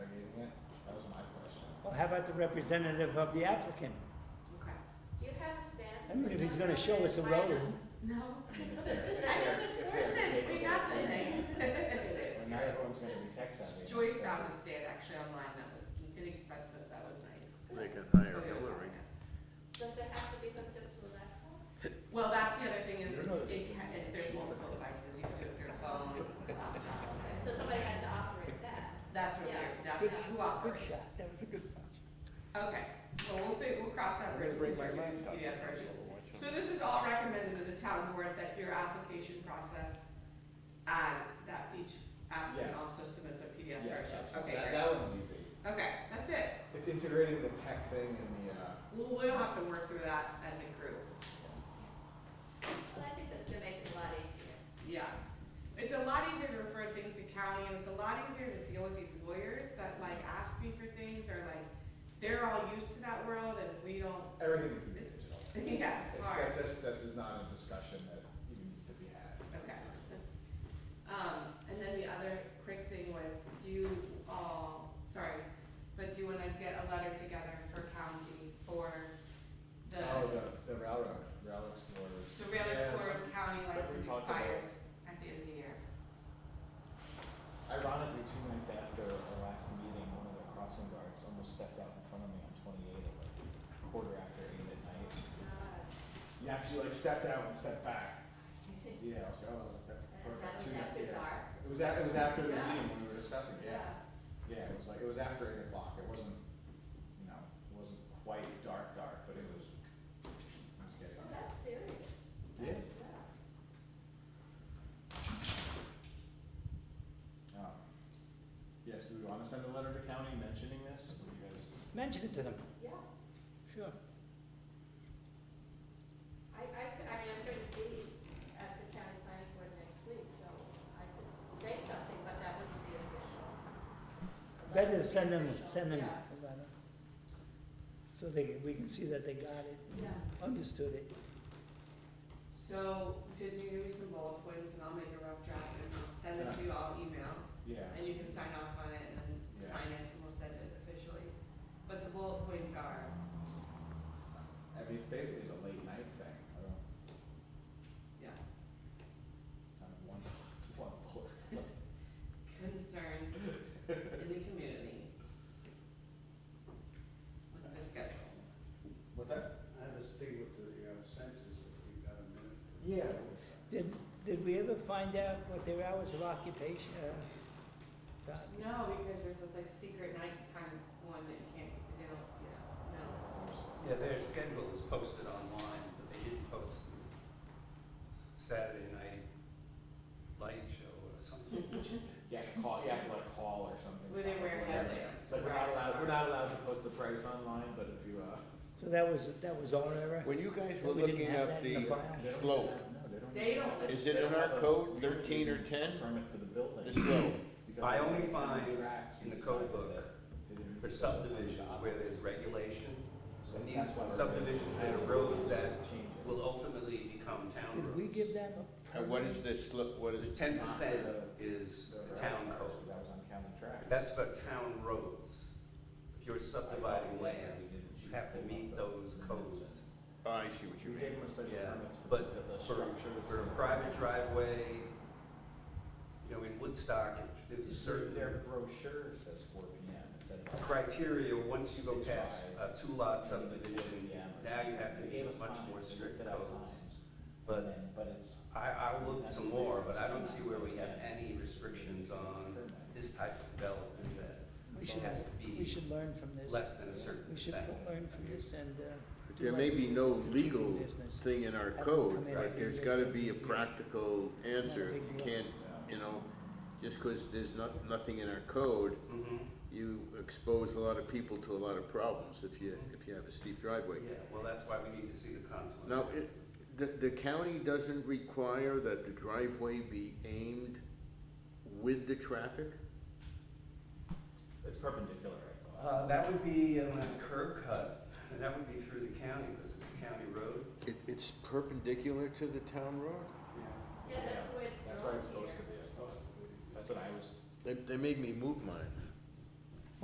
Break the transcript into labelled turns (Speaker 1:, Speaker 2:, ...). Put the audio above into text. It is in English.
Speaker 1: how about the representative of the applicant?
Speaker 2: Okay. Do you have a stand?
Speaker 1: I mean, if he's gonna show us a
Speaker 2: Why not?
Speaker 1: road,
Speaker 2: No. That
Speaker 3: That
Speaker 2: doesn't present for nothing.
Speaker 3: And now everyone's gonna be tech savvy.
Speaker 4: Joyce found a stand actually online that was inexpensive, that was nice.
Speaker 5: They can hire
Speaker 4: Okay.
Speaker 5: Hillary.
Speaker 2: Does it have to be hooked up to a laptop?
Speaker 4: Well, that's the other thing is,
Speaker 3: You know this.
Speaker 4: it can, if there's multiple devices, you can do it with your phone, laptop,
Speaker 2: So somebody has to operate that.
Speaker 4: that's what
Speaker 2: Yeah.
Speaker 4: they're, that's who operates.
Speaker 3: that was a good punch.
Speaker 4: Okay, well, we'll fig, we'll cross that
Speaker 3: I'm
Speaker 4: bridge.
Speaker 3: gonna bring
Speaker 4: when
Speaker 3: my
Speaker 4: we do
Speaker 3: laptop.
Speaker 4: the other versions. So this is all recommended to the town board, that your application process, uh, that each applicant
Speaker 3: Yes.
Speaker 4: also submits a
Speaker 3: Yeah,
Speaker 4: PDF version.
Speaker 3: absolutely. that,
Speaker 4: Okay, great.
Speaker 3: that one's easy.
Speaker 4: okay, that's it.
Speaker 3: It's integrating the tech thing and the, uh,
Speaker 4: We'll, we'll have to work through that as a group.
Speaker 2: Well, I think that's gonna make it a lot easier.
Speaker 4: Yeah. It's a lot easier to refer things to county and it's a lot easier to deal with these lawyers that like ask me for things or like, they're all used to that world and we don't,
Speaker 3: everything's in digital.
Speaker 4: yeah, it's
Speaker 3: It's,
Speaker 4: hard.
Speaker 3: that's, this, this is not a discussion that even needs to be had.
Speaker 4: Okay. Um, and then the other quick thing was, do you all, sorry, but do you wanna get a letter together for county for the,
Speaker 3: Oh, the, the railroad, rail explorers.
Speaker 4: so Rail
Speaker 3: Yeah.
Speaker 4: Explorers County
Speaker 3: we
Speaker 4: license
Speaker 3: talked about.
Speaker 4: expires at the end of the year?
Speaker 3: Ironically, two minutes after our last meeting, one of the crossing guards almost stepped out in front of me on twenty-eight at like quarter after eight at
Speaker 2: Oh,
Speaker 3: night. He actually like stepped out and stepped back. Yeah, I was like, oh, I was like, that's perfect.
Speaker 2: That
Speaker 3: Two
Speaker 2: was
Speaker 3: min-
Speaker 2: after
Speaker 3: yeah.
Speaker 2: dark.
Speaker 3: It was a- it was after the
Speaker 4: Yeah.
Speaker 3: meeting when we were discussing, it, yeah. Yeah, it was like, it was after eight o'clock, it wasn't, you know, it wasn't quite dark, dark, but it was, it was getting
Speaker 2: Well,
Speaker 3: dark.
Speaker 2: Oh, that's serious.
Speaker 3: Yeah.
Speaker 2: That's, uh,
Speaker 3: Um, Yes, do we wanna send a letter to county mentioning this, What do you guys?
Speaker 1: mention it to them,
Speaker 2: Yeah.
Speaker 1: sure.
Speaker 2: I, I could, I mean, I'm gonna be at the county planning board next week, so I could say something, but that wouldn't be official.
Speaker 1: Better to send them,
Speaker 2: Official,
Speaker 1: send them
Speaker 2: Yeah,
Speaker 1: a letter. So they, we can see that they got it,
Speaker 2: yeah.
Speaker 1: understood it.
Speaker 4: So, did you give me some bullet points and I'll make a rough draft and I'll send it to you all email
Speaker 3: Yeah,
Speaker 4: and you can sign off on it and then
Speaker 3: Yeah.
Speaker 4: sign it and we'll send it officially. But the bullet points are,
Speaker 3: I mean, it's basically the late night thing, I don't,
Speaker 4: yeah,
Speaker 3: kind of one, one bullet.
Speaker 4: concerns in the community with the schedule.
Speaker 3: What's that?
Speaker 6: I have this thing with the uh, census, if you've got a minute.
Speaker 3: Yeah.
Speaker 1: Did, did we ever find out what their hours of occupation, uh, Todd?
Speaker 4: No, because there's this like secret nighttime one that you can't, they don't, you know, no.
Speaker 7: Yeah, their schedule is posted online, but they didn't post the Saturday night light show or something.
Speaker 3: You have to call, you have to like call or something.
Speaker 4: Where they wear
Speaker 3: Yeah.
Speaker 4: headlamps.
Speaker 3: It's like, we're not allowed, we're not allowed to post the price online, but if you, uh.
Speaker 1: So that was, that was our error?
Speaker 5: When you guys were
Speaker 1: We didn't
Speaker 5: looking
Speaker 1: have
Speaker 5: up
Speaker 1: that in
Speaker 5: the
Speaker 1: the file.
Speaker 5: slope,
Speaker 3: No, they don't.
Speaker 4: They don't
Speaker 5: is
Speaker 4: list,
Speaker 5: it in our code thirteen or ten?
Speaker 3: Permit for the building.
Speaker 5: The slope,
Speaker 3: Because
Speaker 7: I only
Speaker 3: they- they
Speaker 7: find
Speaker 3: do racks,
Speaker 7: in
Speaker 3: we
Speaker 7: the code
Speaker 3: decided
Speaker 7: book
Speaker 3: that they didn't
Speaker 7: for
Speaker 3: need to build
Speaker 7: subdivisions
Speaker 3: them.
Speaker 7: where there's regulation,
Speaker 3: So
Speaker 7: and these
Speaker 3: that's why we're-
Speaker 7: subdivisions that are roads that
Speaker 3: Change it.
Speaker 7: will ultimately become town
Speaker 1: Did we
Speaker 7: roads.
Speaker 1: give them a?
Speaker 5: and uh, what is this slope, what
Speaker 7: The
Speaker 5: is,
Speaker 7: ten percent is
Speaker 3: The
Speaker 7: the
Speaker 3: rack
Speaker 7: town
Speaker 3: cars,
Speaker 7: code,
Speaker 3: 'cause That was on county track.
Speaker 7: that's for town roads. If you're
Speaker 3: I thought
Speaker 7: subdividing
Speaker 3: we
Speaker 7: land,
Speaker 3: didn't
Speaker 7: you have to
Speaker 3: build
Speaker 7: meet
Speaker 3: up
Speaker 7: those
Speaker 3: the-
Speaker 7: codes.
Speaker 5: oh, I see what you
Speaker 3: We
Speaker 5: mean.
Speaker 3: gave them a special
Speaker 7: Yeah,
Speaker 3: permit. for
Speaker 7: but
Speaker 3: the- the
Speaker 7: for-
Speaker 3: structures.
Speaker 7: for a private driveway, you know, in Woodstock, it was certain
Speaker 3: Their brochure says four P M instead of.
Speaker 7: criteria, once you go
Speaker 3: Six
Speaker 7: past
Speaker 3: drives.
Speaker 7: a two-lot subdivision, now you have to
Speaker 3: They gave
Speaker 7: be
Speaker 3: us
Speaker 7: much
Speaker 3: time,
Speaker 7: more
Speaker 3: they
Speaker 7: strict
Speaker 3: listed out
Speaker 7: codes.
Speaker 3: times, and
Speaker 7: But
Speaker 3: then- But it's.
Speaker 7: I, I will look some more, but I don't see where we have any restrictions on this type of development
Speaker 1: We
Speaker 7: that
Speaker 1: should,
Speaker 7: has to
Speaker 1: we
Speaker 7: be
Speaker 1: should learn from this.
Speaker 7: less than a certain
Speaker 1: We should
Speaker 7: percent.
Speaker 1: learn from this and, uh. do
Speaker 5: There
Speaker 1: what
Speaker 5: may
Speaker 1: we
Speaker 5: be
Speaker 1: do
Speaker 5: no
Speaker 1: to keep the
Speaker 5: legal
Speaker 1: business.
Speaker 5: thing in our
Speaker 1: Have them
Speaker 5: code,
Speaker 1: come in
Speaker 5: right?
Speaker 1: every
Speaker 5: There's
Speaker 1: year
Speaker 5: gotta
Speaker 1: for
Speaker 5: be a
Speaker 1: review.
Speaker 5: practical answer.
Speaker 1: big
Speaker 5: You
Speaker 1: deal.
Speaker 5: can't, you know, just 'cause there's not, nothing in our code,
Speaker 7: Mhm.
Speaker 5: you expose a lot of people to a lot of problems if you, if you have a steep driveway.
Speaker 7: Yeah, well, that's why we need to see the conflict.
Speaker 5: Now, it, the, the county doesn't require that the driveway be aimed with the traffic?
Speaker 3: It's perpendicular, I thought.
Speaker 7: Uh, that would be um, a curb cut, and that would be through the county, because it's a county road.
Speaker 5: It, it's perpendicular to the town road?
Speaker 2: Yeah, that's the way it's
Speaker 3: That's where it's
Speaker 2: drawn
Speaker 3: supposed
Speaker 2: here.
Speaker 3: to be, I thought. That's what I was,
Speaker 5: They, they made me move mine.